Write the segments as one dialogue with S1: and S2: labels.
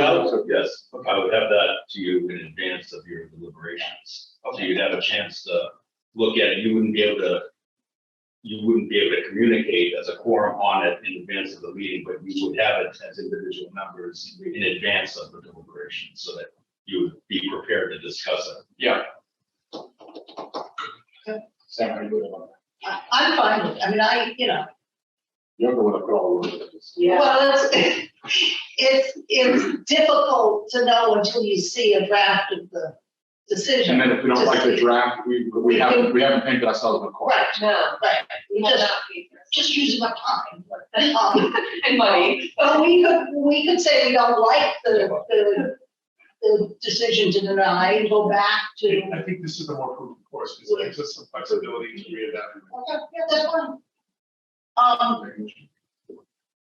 S1: out?
S2: So, Yes,
S1: Okay.
S2: I would have that to you in advance of your deliberations. So you'd have a chance to look at it. You wouldn't be able to, you wouldn't be able to communicate as a quorum on it in advance of the meeting, but you would have it as individual members in advance of the deliberations so that you would be prepared to discuss it.
S1: Yeah. Sound good about
S3: I, I'm fine with, it. I mean, I, you know,
S1: You're the one that put all the work into this.
S4: Yeah,
S3: well, it's, it's, it's difficult to know until you see a draft of the
S1: And
S3: decision.
S1: then if we don't like the draft, we, we haven't, we haven't painted ourselves in a corner.
S3: Right,
S4: no,
S3: right,
S4: we have
S3: just,
S4: not paid for
S3: just using my time, but, um,
S4: it. And money.
S3: Well, we could, we could say we don't like the, the, the decision to deny and go back to.
S5: I think this is the more prudent course, because it gives us some flexibility to readapt.
S3: Okay, yeah, that's fine. Um,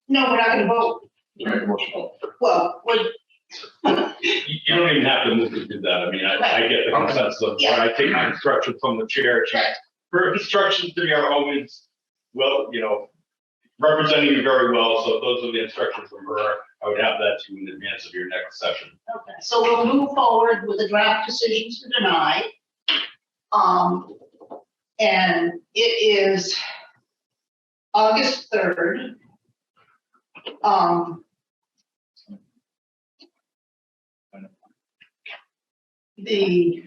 S3: no, we're not gonna vote,
S1: Very emotional.
S3: well, we're,
S2: You you don't even have to move to do that. I mean, I, I get the consensus of when I take my instruction from the chair. she-
S3: Right.
S2: Her instructions to me are always, well, you know, representing you very well. So if those are the instructions from her. I would have that to you in advance of your next session.
S3: Okay, so we'll move forward with the draft decisions to deny. Um, and it is August third. Um. The,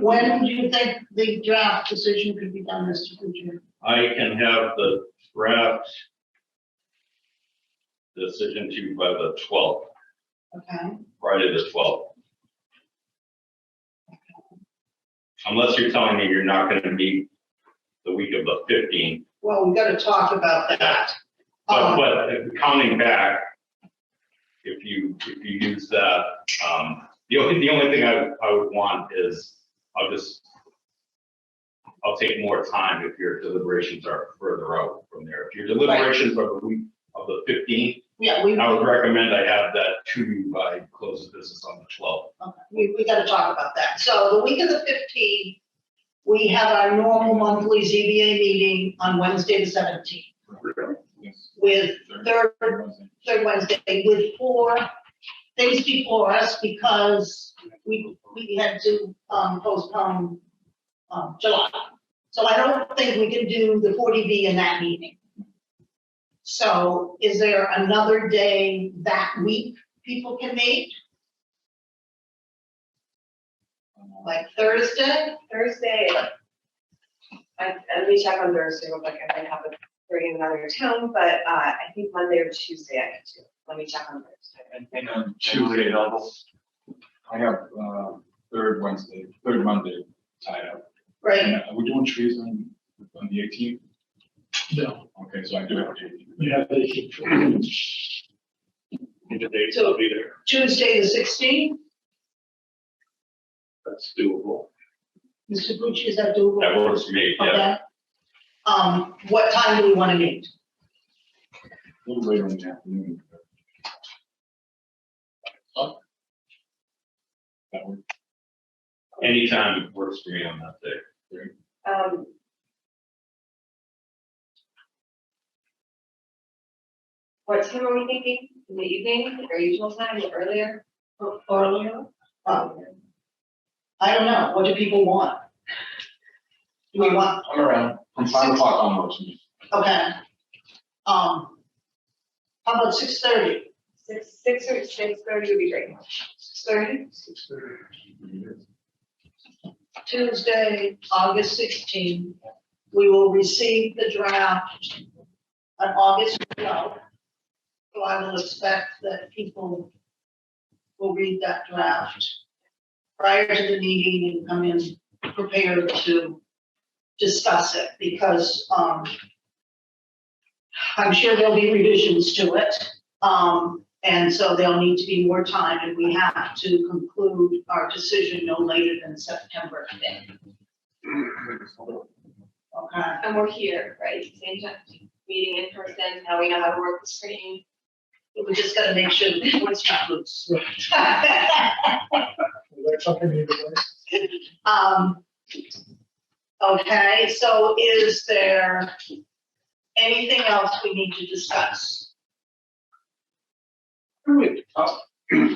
S3: when do you think the draft decision could be done, Mr. Kuchar?
S2: I can have the draft decision to you by the twelfth,
S3: Okay,
S2: Friday the twelfth. Unless you're telling me you're not going to meet the week of the fifteenth.
S3: well, we gotta talk about that.
S2: But,
S3: Um,
S2: but if counting back, if you, if you use that, um, the only, the only thing I, I would want is, I'll just, I'll take more time if your deliberations are further out from there. If your deliberations are the week of the fifteenth,
S3: Yeah, we,
S2: I would recommend I have that to you by close of business on the twelfth.
S3: Okay, we, we gotta talk about that. So the week of the fifteenth, we have our normal monthly ZBA meeting on Wednesday the seventeenth with third, third Wednesday with four things before us because we, we had to um, postpone um, July. So I don't think we can do the forty B in that meeting. So is there another day that week people can meet? Like Thursday?
S4: Thursday, I, let me check on Thursday, real quick. I might have a, bring in another town, but, uh, I think Monday or Tuesday I could do. Let me check on Thursday.
S1: And, and um, on Tuesday, I have, uh, third Wednesday, third Monday tied up.
S3: Right,
S1: And uh, Are we doing trees on, on the eighteenth?
S5: No.
S1: Okay, so I do have a date.
S5: Yeah, they should. Need a date,
S3: I'll
S5: be there.
S3: Tuesday the sixteenth,
S5: That's doable.
S3: Mr. Bucci, is that doable?
S2: That works for me, yeah.
S3: Okay. Um, what time do we want to meet?
S1: A little later in the afternoon. Huh? That work?
S2: Anytime works for me on that day.
S4: Um. What time are we thinking? In the evening, our usual time, earlier? Earlier.
S3: Um, I don't know, what do people want? Do we want,
S1: I'm around, from five o'clock onwards.
S3: okay. Um, how about six thirty?
S4: Six, six or six thirty would be great.
S3: Six thirty?
S1: Mm-hmm.
S3: Tuesday, August sixteenth, we will receive the draft on August twelfth. So I will expect that people will read that draft prior to the meeting and come in prepared to discuss it because, um, I'm sure there'll be revisions to it. Um, and so there'll need to be more time and we have to conclude our decision no later than September fifth, okay?
S4: And we're here, right, same time, meeting in person, now we know how to work the screen.
S3: We just gotta make sure that it's not loose.
S5: Is there something you need to do?
S3: Um, okay, so is there anything else we need to discuss?
S5: Wait, uh,